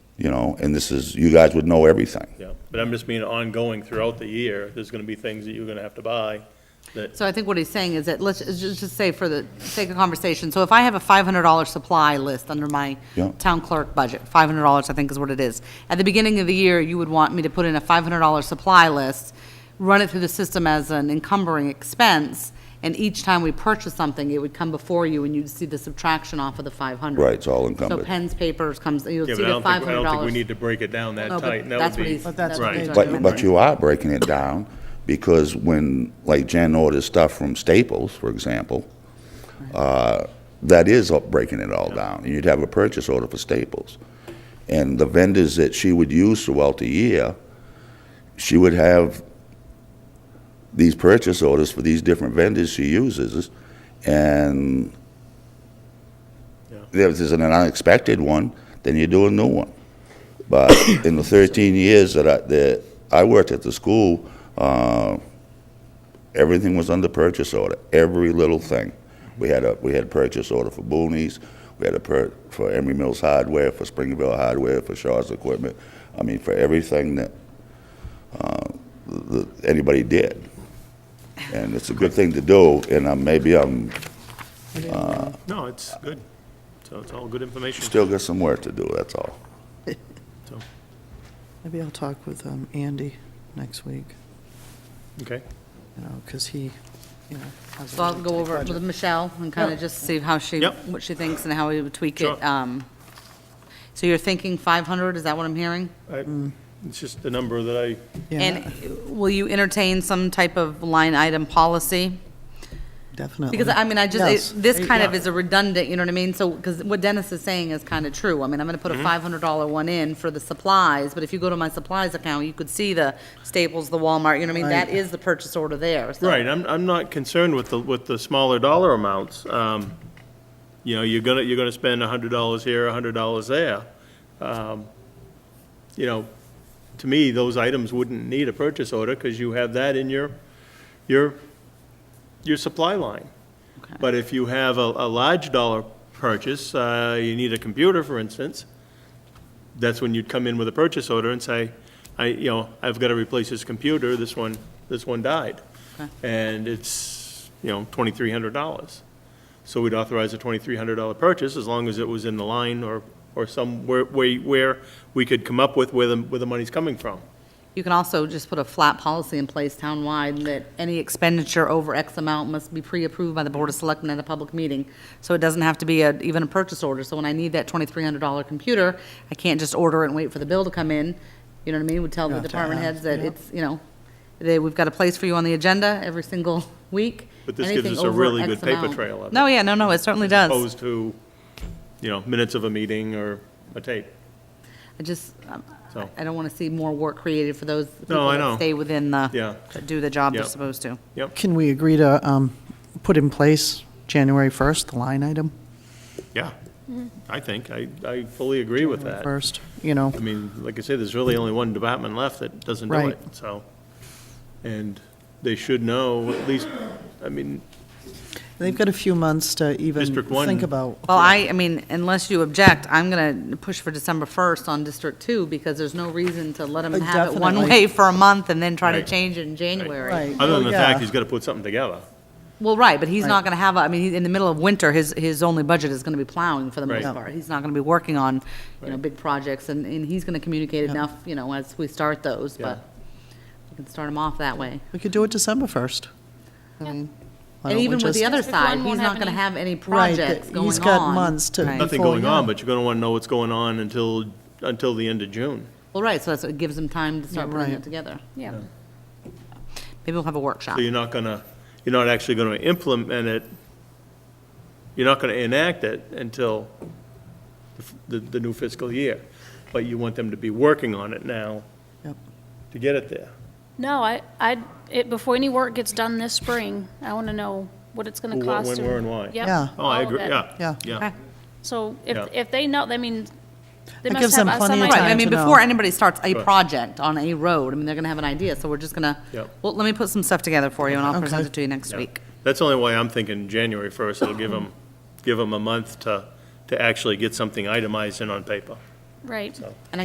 you know, and this is, you guys would know everything. Yeah, but I'm just meaning ongoing throughout the year, there's gonna be things that you're gonna have to buy that, So I think what he's saying is that, let's just just say for the sake of conversation, so if I have a $500 supply list under my Yeah. town clerk budget, $500 I think is what it is. At the beginning of the year, you would want me to put in a $500 supply list, run it through the system as an encumbering expense, and each time we purchase something, it would come before you and you'd see the subtraction off of the 500. Right, it's all So encumbered. pens, papers comes, you'll yeah, see but I the don't think, I don't think we $500. need to break it down that No, but tight. That would that's what be- he's- But that's what right. they're But, doing. but you are breaking it down, because when, like Jen orders stuff from Staples, for example, uh, that is up- breaking it all down. You'd have a purchase order for Staples. And the vendors that she would use throughout the year, she would have these purchase orders for these different vendors she uses, and if there's an unexpected one, then you do a new one. But in the 13 years that I, that I worked at the school, uh, everything was under purchase order, every little thing. We had a, we had a purchase order for Boonies, we had a per, for Emery Mills Hardware, for Springville Hardware, for Shaw's Equipment. I mean, for everything that, uh, that anybody did. And it's a good thing to do, and I'm, maybe I'm, No, it's good. So it's all good information. still got some work to do, that's all. So, Maybe I'll talk with um, Andy next week, Okay. you know, because he, you know. has a So I'll really go tight over it budget. with Michelle and kind of just see how she, Yep. what she thinks and how we would tweak Sure. it. Um, So you're thinking 500, is that what I'm hearing? I- Mm. It's just the number that I, Yeah, And will you entertain some type of line item policy? definitely. Because, I mean, I Yes. just, it- this kind of is a redundant, you know what I mean? So, because what Dennis is saying is kind of true. I mean, I'm going to Mm-hmm. put a $500 one in for the supplies, but if you go to my supplies account, you could see the Staples, the Walmart, you know what I mean? That Right. is the purchase order there, so. right, I'm, I'm not concerned with the, with the smaller dollar amounts. Um, You know, you're gonna, you're gonna spend a hundred dollars here, a hundred dollars there. Um, You know, to me, those items wouldn't need a purchase order, because you have that in your, your, your supply line. Okay. But if you have a, a large dollar purchase, uh, you need a computer, for instance, that's when you'd come in with a purchase order and say, I, you know, I've got to replace this computer, this one, this one died. And it's, you know, twenty-three hundred dollars. So we'd authorize a twenty-three hundred dollar purchase as long as it was in the line or, or somewhere where, where we could come up with where the, where the money's coming from. You can also just put a flat policy in place townwide that any expenditure over X amount must be pre-approved by the Board of Selectmen at a public meeting. So it doesn't have to be a- even a purchase order. So when I need that $2,300 computer, I can't just order it and wait for the bill to come in. You know what I mean? We tell the Have to department have, heads that yeah. it's, you know, they, we've got a place for you on the agenda every single week. But this gives Anything us a over really X good paper amount. trail of it. No, yeah, no, no, it certainly does. opposed to, you know, minutes of a meeting or a tape. I just, um, So- I don't want to see more work created for those people I that know. stay within the, Yeah. that do the job they're Yeah. supposed to. Can we agree to um, put in place January 1st, the line item Yeah, I think, I, I fully agree with that. first, you know? I mean, like I said, there's really only one department left that doesn't do Right. it, so. And they should know, at least, I mean, They've got a few months to even District one- think about. Well, I, I mean, unless you object, I'm going to push for December 1st on District 2, because there's no reason to let them Uh, have it one definitely. way for a month and then try to Right. change it in January. Right. other than the fact Yeah. he's gotta put something together. Well, right, but he's Right. not going to have, a- I mean, he- in the middle of winter, his, his only budget is going to be plowing for the most Right. part. He's not going to be working on, you know, Right. big projects, and, and he's going to communicate enough, you know, as we start those, Yeah. but we can start him off that way. We could do it December 1st. I mean, why And don't we even with just- the other District one side, he's won't not have going to any- have any Right, that projects going on. he's got months to- Right. Nothing Before, going on, yeah. but you're gonna wanna know what's going on until, until the end of June. Well, right, so that's, it gives him time to start Yeah, putting it right. together. Yeah. Maybe we'll have a workshop. So you're not gonna, you're not actually gonna implement it, you're not gonna enact it until the f- the, the new fiscal year. But you want them to be working on it now Yep. to get it there. No, I, I, it, before any work gets done this spring, I want to know what it's going Who, to what, cost. when, where, and why. Yep, Yeah. Oh, I all of agree, it. yeah. Yeah. Yeah. So Yeah. if, if they know, that means they It must gives have them us plenty some of Right, idea. I time mean, to before know. anybody starts a Right. project on a road, I mean, they're gonna have an idea, so we're just gonna, Yep. well, let me put some stuff together for you, and I'll present Okay. it to you next Yeah. week. That's the only way I'm thinking January 1st, it'll give them, give them a month to, to actually get something itemized in on paper. Right.